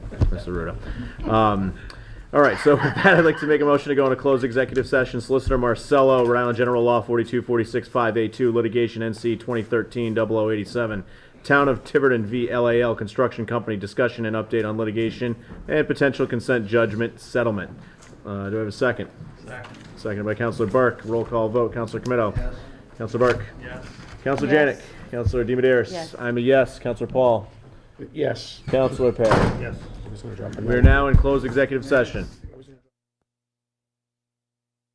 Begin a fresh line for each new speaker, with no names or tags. Mr. Ruda. Um, all right, so with that, I'd like to make a motion to go into closed executive session. Solicitor Marcello, Rhode Island General Law 42465A2, litigation NC 2013-0087, Town of Tiverton v. LAL Construction Company, discussion and update on litigation and potential consent judgment settlement. Uh, do I have a second? Second. Seconded by Counselor Burke. Roll call vote. Counselor Comito? Yes. Counselor Burke? Yes. Counselor Janik?
Yes.
Counselor DiMederos?
Yes.
I'm a yes. Counselor Paul?
Yes.
Counselor Perry?
Yes.
We're now in closed executive session.